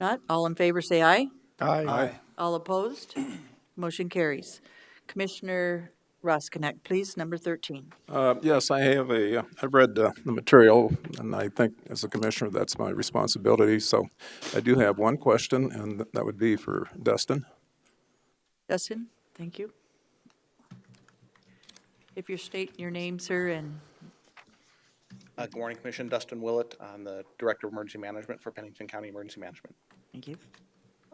Not, all in favor, say aye. Aye. All opposed? Motion carries. Commissioner Roskinek, please, number 13. Uh, Yes, I have a, uh, I've read uh, the material, and I think as a commissioner, that's my responsibility. So I do have one question, and that would be for Dustin. Dustin, thank you. If you state your name, sir, and Uh, Good morning, Commission. Dustin Willett. I'm the Director of Emergency Management for Pennington County Emergency Management. thank you.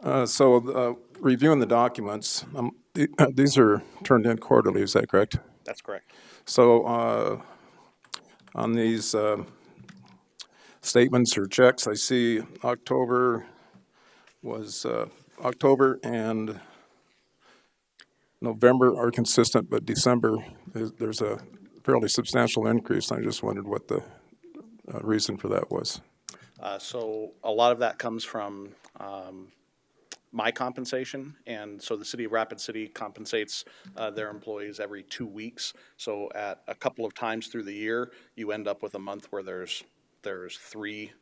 Uh, So uh, reviewing the documents, um, the- these are turned in quarterly, is that correct? That's correct. So uh, on these uh, statements or checks, I see October was, uh, October and November are consistent, but December, is- there's a fairly substantial increase. I just wondered what the uh, reason for that was. Uh, So a lot of that comes from um, my compensation, and so the City of Rapid City compensates uh, their employees every two weeks. So at a couple of times through the year, you end up with a month where there's, there's three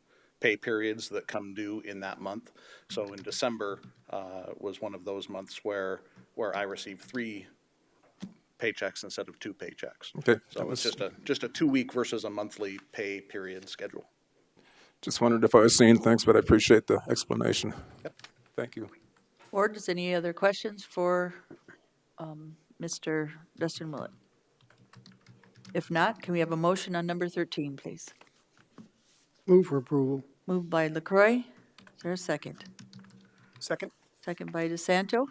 pay periods that come due in that month. So in December uh, was one of those months where, where I received three paychecks instead of two paychecks. Okay, that So was- it's just a, just a two-week versus a monthly pay period schedule. Just wondered if I was seeing things, but I appreciate the explanation. Thank you. Or does any other questions for um, Mr. Dustin Willett? If not, can we have a motion on number 13, please? Move for approval. Moved by Lacroix. Is there a second? Second. Second by DeSanto.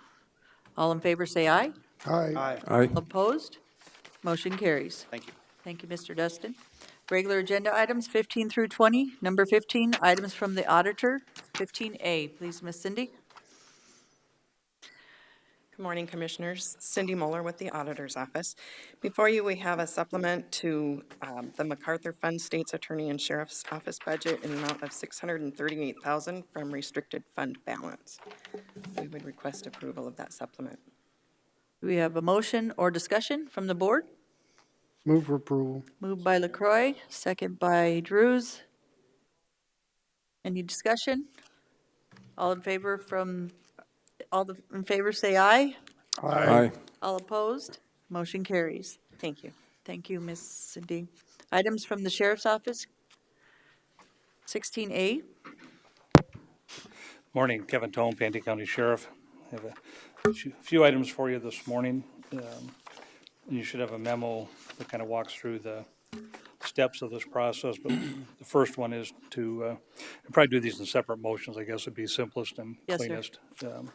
All in favor, say aye. Aye. Aye. Opposed? Motion carries. Thank you. Thank you, Mr. Dustin. Regular agenda items 15 through 20. Number 15, items from the auditor. 15A, please, Miss Cindy. Good morning, Commissioners. Cindy Mueller with the Auditor's Office. Before you, we have a supplement to um, the MacArthur Fund State's Attorney and Sheriff's Office budget in an amount of $638,000 from restricted fund balance. We would request approval of that supplement. Do we have a motion or discussion from the board? Move for approval. Moved by Lacroix, second by Drews. Any discussion? All in favor from, all the, in favor, say aye. Aye. All opposed? Motion carries. Thank you. Thank you, Ms. Cindy. Items from the Sheriff's Office. 16A, Morning, Kevin Tone, Pantee County Sheriff. I have a few- few items for you this morning. Um, You should have a memo that kind of walks through the steps of this process, but the first one is to, uh, I'd probably do these in separate motions, I guess would be simplest and Yes, sir. cleanest. Um,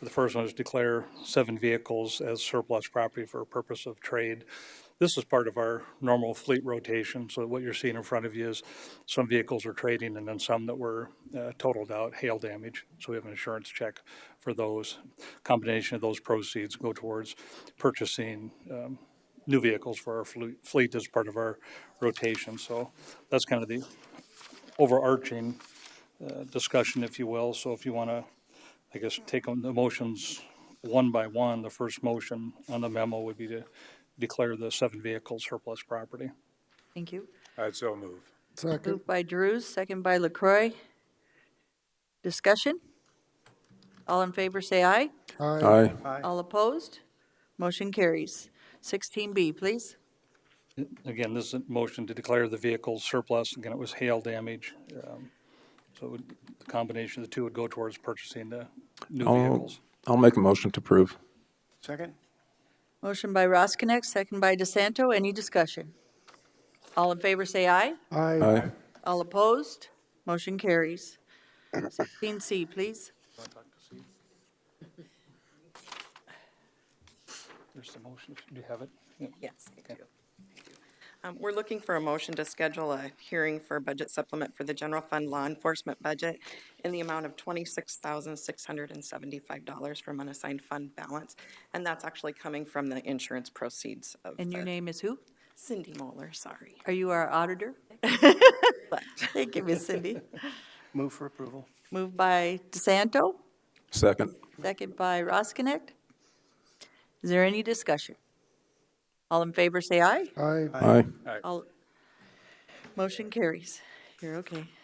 The first one is declare seven vehicles as surplus property for purpose of trade. This is part of our normal fleet rotation, so what you're seeing in front of you is some vehicles are trading and then some that were uh, totaled out, hail damage, so we have an insurance check for those. Combination of those proceeds go towards purchasing um, new vehicles for our fle- fleet as part of our rotation, so that's kind of the overarching uh, discussion, if you will. So if you want to, I guess, take on the motions one by one, the first motion on the memo would be to declare the seven vehicle surplus property. thank you. I'd so move. Second. Moved by Drews, second by LaCroy. Discussion? All in favor, say aye. Aye. All opposed? Motion carries. 16B, please. Again, this is a motion to declare the vehicle surplus. Again, it was hail damage. um, So it would- the combination of the two would go towards purchasing the new I'll- vehicles. I'll make a motion to approve. Second. Motion by Roskinek, second by DeSanto. Any discussion? All in favor, say aye. Aye. Aye. All opposed? Motion carries. 16C, please. There's the motion. Do you have it? Yeah. Yes, I do. Um, We're looking for a motion to schedule a hearing for a budget supplement for the general fund law enforcement budget in the amount of $26,675 from unassigned fund balance. And that's actually coming from the insurance proceeds of And your the- name is who? Cindy Moeller, sorry. Are you our auditor? Thank you, Miss Cindy. Move for approval. Moved by DeSanto, Second. second by Roskinek. Is there any discussion? All in favor, say aye. Aye. Aye. All, motion carries. You're okay.